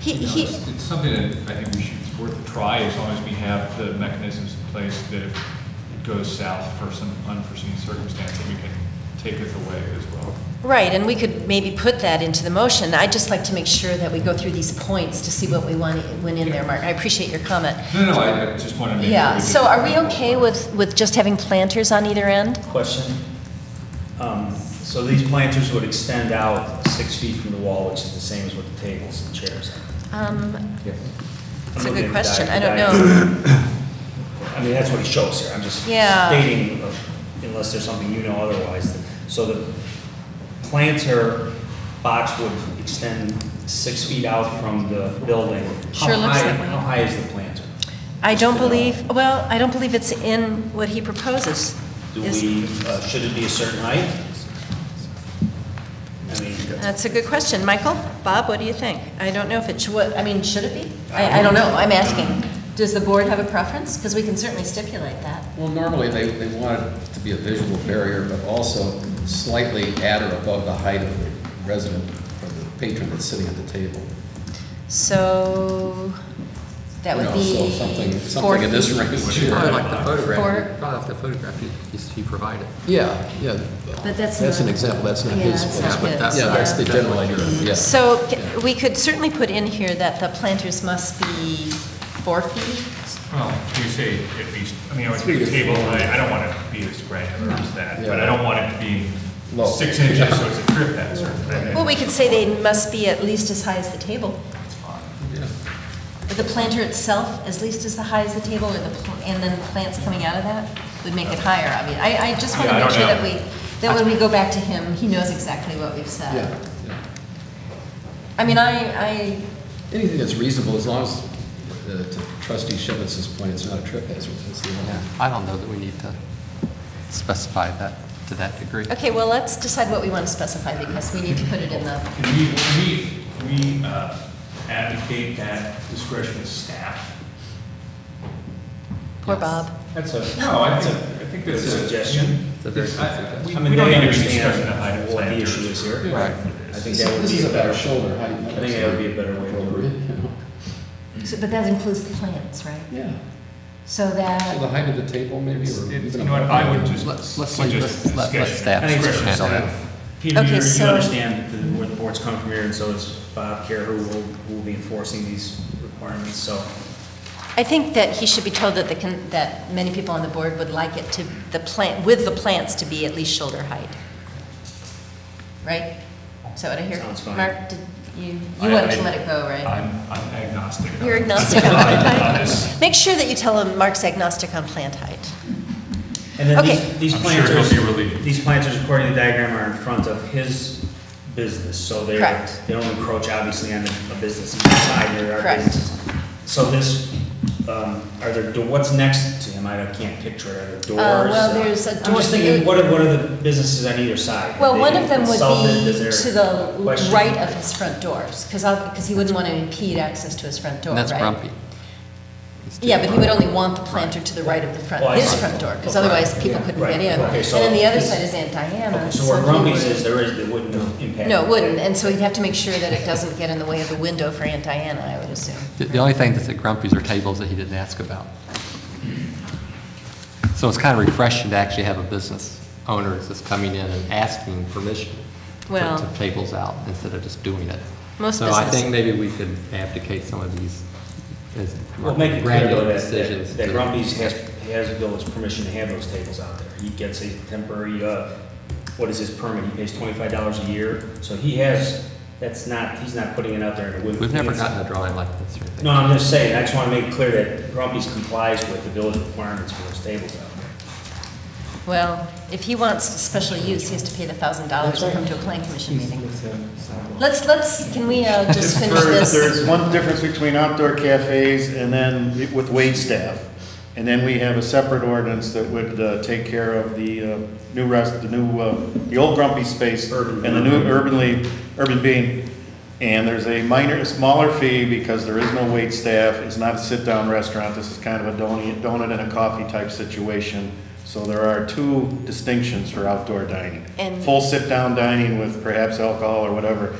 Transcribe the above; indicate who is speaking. Speaker 1: He-
Speaker 2: You know,
Speaker 1: he-
Speaker 2: it's, it's something that I think we should, it's worth a try as long as we have the mechanisms in place that if it goes south for some unforeseen circumstance, that we can take it away as well.
Speaker 1: Right, and we could maybe put that into the motion. I'd just like to make sure that we go through these points to see what we want, went in there, Mark. I appreciate your comment.
Speaker 2: No, no, I I just want to make. sure
Speaker 1: Yeah,
Speaker 2: we
Speaker 1: so
Speaker 2: get-
Speaker 1: are we okay with, with just having planters on either end?
Speaker 3: Question. Um, So these planters would extend out six feet from the wall, which is the same as what the tables and chairs are.
Speaker 1: Um, It's a
Speaker 3: I'm
Speaker 1: good
Speaker 3: looking at the
Speaker 1: question.
Speaker 3: di- the
Speaker 1: I don't
Speaker 3: diagram. I mean, that's what it shows here. I'm just
Speaker 1: Yeah.
Speaker 3: stating, uh, unless there's something you know otherwise. So the planter box would extend six feet out from the building. How
Speaker 1: Sure looks
Speaker 3: high-
Speaker 1: that way.
Speaker 3: How high is the planter?
Speaker 1: I don't believe, well, I don't believe it's in what he proposes.
Speaker 3: Do
Speaker 1: Is-
Speaker 3: we, uh, should it be a certain height? I mean,
Speaker 1: That's a good question. Michael, Bob, what do you think? I don't know if it should, what- I mean, should it be? I, I don't know, I'm asking. Does the board have a preference? Because we can certainly stipulate that.
Speaker 4: Well, normally, they, they want it to be a visual barrier, but also slightly at or above the height of the resident or the patron that's sitting at the table.
Speaker 1: So, that
Speaker 4: You
Speaker 1: would
Speaker 4: know,
Speaker 1: be
Speaker 4: So something,
Speaker 1: four
Speaker 4: something in this
Speaker 1: feet.
Speaker 4: range.
Speaker 5: Probably like the
Speaker 1: For-
Speaker 5: photograph, probably like the photograph he- he he provided.
Speaker 4: Yeah, yeah.
Speaker 1: But that's
Speaker 4: That's
Speaker 1: not-
Speaker 4: an example, that's not
Speaker 1: Yeah,
Speaker 4: his.
Speaker 1: that's
Speaker 4: place,
Speaker 1: not
Speaker 4: but
Speaker 1: his,
Speaker 4: Yeah, that's the
Speaker 5: yeah.
Speaker 4: general idea, yeah.
Speaker 1: So c- we could certainly put in here that the planters must be four feet.
Speaker 2: Well, you say at least, I mean, I would the table, I, I don't want it to be as granular as that, but I don't want it to be
Speaker 4: Low.
Speaker 2: six inches, so it's a trip hazard. and-
Speaker 1: Well, we could say they must be at least as high as the table.
Speaker 4: Yeah.
Speaker 1: But The planter itself, at least as the high as the table, or the, pl- and then plants coming out of that, would make it higher, I mean, I, I just want to
Speaker 2: Yeah, I
Speaker 1: make
Speaker 2: don't
Speaker 1: sure that
Speaker 2: know.
Speaker 1: we, that when we go back to him, he knows exactly what we've said.
Speaker 4: Yeah, yeah.
Speaker 1: I mean, I, I,
Speaker 4: Anything that's reasonable, as long as, uh, to trustee Shevitz's point, it's not a trip hazard, that's the only.
Speaker 5: I don't know that we need to specify that to that degree.
Speaker 1: okay, well, let's decide what we want to specify, because we need to put it in the,
Speaker 2: Can we, can we, can we uh, advocate that discretion of staff?
Speaker 1: poor Bob.
Speaker 3: that's a.
Speaker 2: No, I
Speaker 3: that's
Speaker 2: think,
Speaker 3: a-
Speaker 2: I think
Speaker 3: that's
Speaker 2: that's.
Speaker 3: a suggestion.
Speaker 5: It's a very
Speaker 2: it's- I-
Speaker 5: good
Speaker 2: We
Speaker 3: I
Speaker 2: we
Speaker 3: mean,
Speaker 2: don't
Speaker 3: they
Speaker 2: need to be discussing the height
Speaker 3: understand
Speaker 2: of
Speaker 3: what the issue
Speaker 2: planters.
Speaker 3: is here.
Speaker 5: Right.
Speaker 3: I think that would
Speaker 4: This
Speaker 3: be
Speaker 4: is
Speaker 3: a better,
Speaker 4: shoulder height.
Speaker 3: I think that would be a better way to
Speaker 4: Over
Speaker 3: do
Speaker 4: it,
Speaker 3: it.
Speaker 4: you know.
Speaker 1: So, but that includes the plants, right?
Speaker 4: Yeah.
Speaker 1: So
Speaker 4: So the
Speaker 1: that,
Speaker 4: height of the table maybe,
Speaker 2: It's-
Speaker 4: or
Speaker 2: it's-
Speaker 4: even.
Speaker 2: You know what,
Speaker 4: above
Speaker 2: I would
Speaker 4: that.
Speaker 2: just
Speaker 5: Let's- let's leave
Speaker 2: suggest
Speaker 5: this- let- let
Speaker 2: discretion.
Speaker 5: staff
Speaker 3: I think it's
Speaker 2: discretion of
Speaker 5: handle that.
Speaker 2: staff.
Speaker 3: Peter,
Speaker 1: Okay,
Speaker 3: you
Speaker 1: so-
Speaker 3: understand the- where the board's coming from here, and so does Bob Care, who will, who will be enforcing these requirements, so.
Speaker 1: I think that he should be told that the, con- that many people on the board would like it to, the plant, with the plants to be at least shoulder height. Right? Is that what I hear?
Speaker 3: Sounds fine.
Speaker 1: Mark, did you, you
Speaker 2: I-
Speaker 1: wanted to
Speaker 2: I-
Speaker 1: let it go, right?
Speaker 2: I'm, I'm agnostic. on-
Speaker 1: You're agnostic on
Speaker 2: on-
Speaker 1: plant
Speaker 2: on
Speaker 1: height.
Speaker 2: this.
Speaker 1: Make sure that you tell him Mark's agnostic on plant height.
Speaker 3: And then
Speaker 1: Okay.
Speaker 3: these, these
Speaker 2: I'm sure he'll
Speaker 3: planters,
Speaker 2: be relieved.
Speaker 3: these planters, according to the diagram, are in front of his business, so they're,
Speaker 1: Correct.
Speaker 3: they don't encroach obviously on a business inside, there are
Speaker 1: Correct.
Speaker 3: businesses. So this, um, are there, do- what's next to him, I can't picture, it. are there doors?
Speaker 1: Uh, well, there's a
Speaker 3: I'm
Speaker 1: door-
Speaker 3: just thinking, what are, what are the businesses on either side? Have
Speaker 1: Well,
Speaker 3: they
Speaker 1: one
Speaker 3: been
Speaker 1: of them would
Speaker 3: consulted?
Speaker 1: be
Speaker 3: Is there
Speaker 1: to
Speaker 3: a
Speaker 1: the
Speaker 3: question?
Speaker 1: right of his front doors, because, because he wouldn't want to impede access to his front door,
Speaker 5: And
Speaker 1: right?
Speaker 5: that's grumpy. He's too
Speaker 1: Yeah, but he would
Speaker 5: grumpy.
Speaker 1: only want the planter to the right of the front,
Speaker 3: Well, I
Speaker 1: his
Speaker 3: see.
Speaker 1: front door, because otherwise people couldn't
Speaker 3: Right.
Speaker 1: get in.
Speaker 3: Okay,
Speaker 1: And
Speaker 3: so-
Speaker 1: then the other side is Aunt
Speaker 3: Okay,
Speaker 1: Diana.
Speaker 3: So where
Speaker 1: he
Speaker 3: Rumby's
Speaker 1: would-
Speaker 3: is, there is, it wouldn't impact.
Speaker 1: No, it wouldn't, and so he'd have to make sure that it doesn't get in the way of the window for Aunt Diana, I would assume.
Speaker 5: The- The only thing that's at Grumpy's are tables that he didn't ask about. So it's kind of refreshing to actually have a business owner that's coming in and asking permission to-
Speaker 1: Well-
Speaker 5: to tables out instead of just doing it.
Speaker 1: Most
Speaker 5: So I
Speaker 1: businesses-
Speaker 5: think maybe we could abdicate some of these as
Speaker 3: Well, make it clear though
Speaker 5: granular
Speaker 3: that-
Speaker 5: decisions.
Speaker 3: that, that
Speaker 5: to-
Speaker 3: Grumpy's has, he has the village permission to have those tables out there. He gets a temporary, uh, what is his permit? He pays twenty-five dollars a year, so he has, that's not, he's not putting it out there in a whim.
Speaker 5: We've never gotten a drawing like this or anything.
Speaker 3: No, I'm just saying, I just wanna make it clear that Grumpy's complies with the village requirements for those tables out there.
Speaker 1: Well, if he wants special use, he has to pay the thousand dollars to come to a plan commission meeting. Let's, let's, can we uh, just finish
Speaker 6: There-
Speaker 1: this?
Speaker 6: There's one difference between outdoor cafes and then it- with wait staff. And then we have a separate ordinance that would uh, take care of the uh, new rest, the new, uh, the old grumpy space
Speaker 3: Urban.
Speaker 6: and the new urban league, urban being. And there's a minor, a smaller fee because there is no wait staff. It's not a sit-down restaurant. This is kind of a donut donut and a coffee type situation. So there are two distinctions for outdoor dining.
Speaker 1: And-
Speaker 6: Full sit-down dining with perhaps alcohol or whatever,